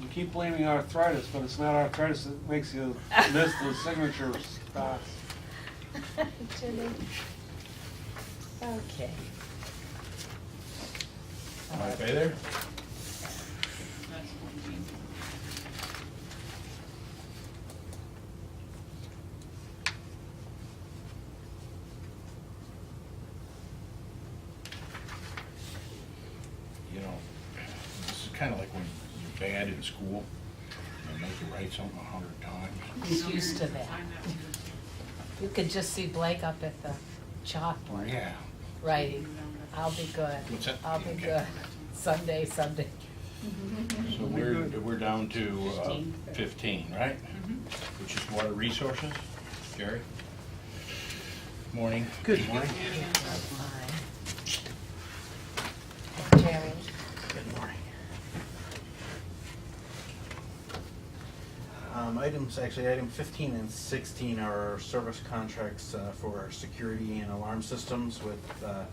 You keep blaming arthritis, but it's not arthritis that makes you miss the signature spots. Jimmy. Okay. Am I okay there? You know, this is kinda like when you're bad in school, and they make you write something a hundred times. He's used to that. You could just see Blake up at the chalkboard Yeah, writing, I'll be good, What's that? I'll be Okay. good, someday, someday. so we're, we're down to uh, fifteen, right? Which is water resources, Gary? Morning. Good morning. Jerry, Good morning. Um, items, actually, item fifteen and sixteen are service contracts uh, for our security and alarm systems with uh,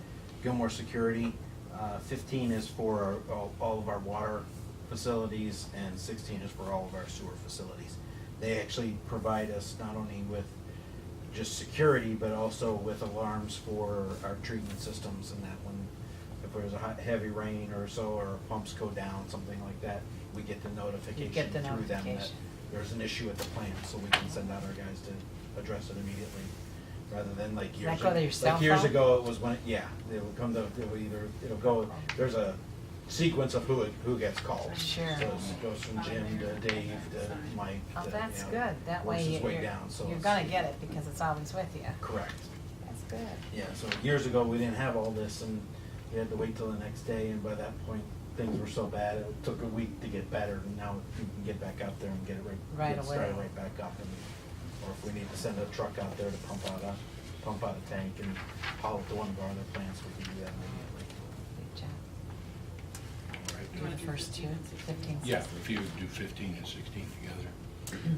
Gilmore Security. Uh, Fifteen is for our- all- all of our water facilities, and sixteen is for all of our sewer facilities. They actually provide us not only with just security, but also with alarms for our treatment systems and that when, if there's a hot- heavy rain or so, or pumps go down, something like that, we get the notification get the through them that notification. there's an issue at the plant, so we can send out our guys to address it immediately, rather than like Does years. that go to your cell Like years phone? ago, it was when, yeah, it would come to, it would either, it'll go, there's a sequence of who, it- who gets called. Sure. So it goes from Jim to Dave to Mike. oh, to, that's you know, good, that works way its you're, way down, so you're it's- gonna get it because it's always with you. Correct. That's good. Yeah, so years ago, we didn't have all this, and we had to wait till the next day, and by that point, things were so bad, it took a week to get better, and now we can get back out there and get it right. Right get away. started right back up, and, or if we need to send a truck out there to pump out a, pump out a tank and haul it to one of our other plants, we can do that immediately. Good job. Alright. Do the first two, fifteen, Yeah, sixteen. if you do fifteen and sixteen together.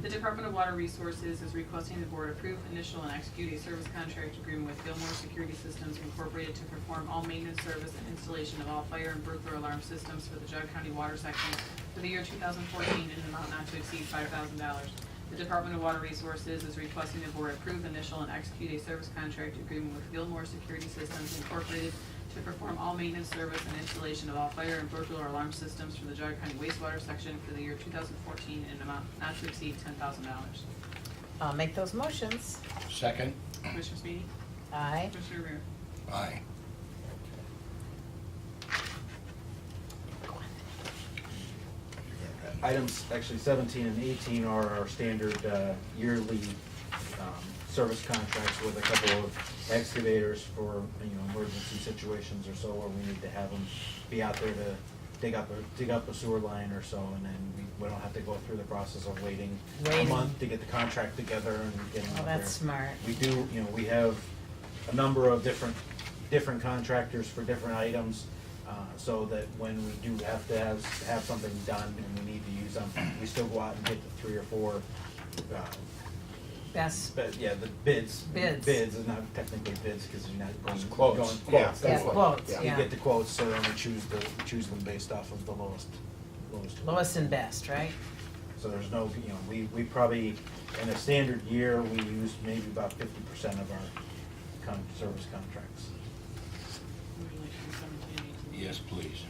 The Department of Water Resources is requesting the board approve, initial, and execute a service contract agreement with Gilmore Security Systems Incorporated to perform all maintenance service and installation of all fire and burglar alarm systems for the Jug County Water Section for the year 2014 in an amount not to exceed $5,000. The Department of Water Resources is requesting the board approve, initial, and execute a service contract agreement with Gilmore Security Systems Incorporated to perform all maintenance service and installation of all fire and burglar alarm systems for the Jogga County wastewater section for the year 2014 in an amount not to exceed $10,000. I'll make those motions. Second? Commissioner Sweeney? Aye. Commissioner Rea? Aye. Items, actually seventeen and eighteen are our standard uh, yearly um, service contracts with a couple of excavators for, you know, emergency situations or so, where we need to have them be out there to dig up, a dig up a sewer line or so, and then we- we don't have to go through the process of waiting a Waiting. month to get the contract together and getting Well, out there. that's smart. We do, you know, we have a number of different, different contractors for different items, uh, so that when we do have to have, have something done and we need to use them, we still go out and get the three or four, uh, Best, but, yeah, the bids. Bids. Bids, is not technically bids, because you're not going. Quotes. going- Yeah, Quotes, yeah, that's what. quotes, You yeah. get the quotes, so then we choose the, choose them based off of the lowest, lowest. one. Lowest and best, right? So there's no, you know, we, we probably, in a standard year, we use maybe about fifty percent of our con, service contracts. Would you like to do 17 and 18? Yes, please.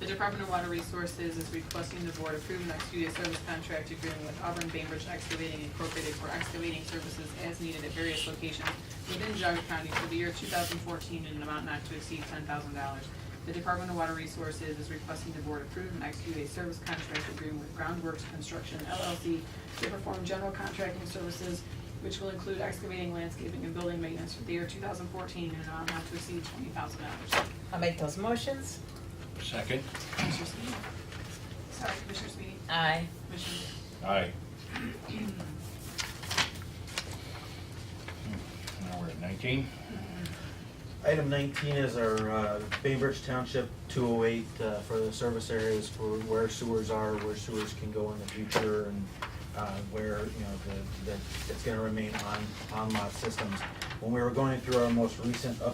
The Department of Water Resources is requesting the board approve and execute a service contract agreement with Auburn Bainbridge Excavating Incorporated for excavating services as needed at various locations within Jogga County for the year two thousand fourteen in an amount not to exceed ten thousand dollars. The Department of Water Resources is requesting the board approve and execute a service contract agreement with Groundworks Construction LLC to perform general contracting services which will include excavating, landscaping, and building maintenance for the year two thousand fourteen in an amount not to exceed twenty thousand dollars. I'll make those motions. Second? Commissioner Sweeney? Sorry, Commissioner Sweeney? Aye. Commissioner Aye. Hmm, Now we're at nineteen? Item nineteen is our uh, Bainbridge Township two oh eight for the service areas for where sewers are, where sewers can go in the future, and uh, where, you know, the, the, it's gonna remain on, on lot systems. When we were going through our most recent up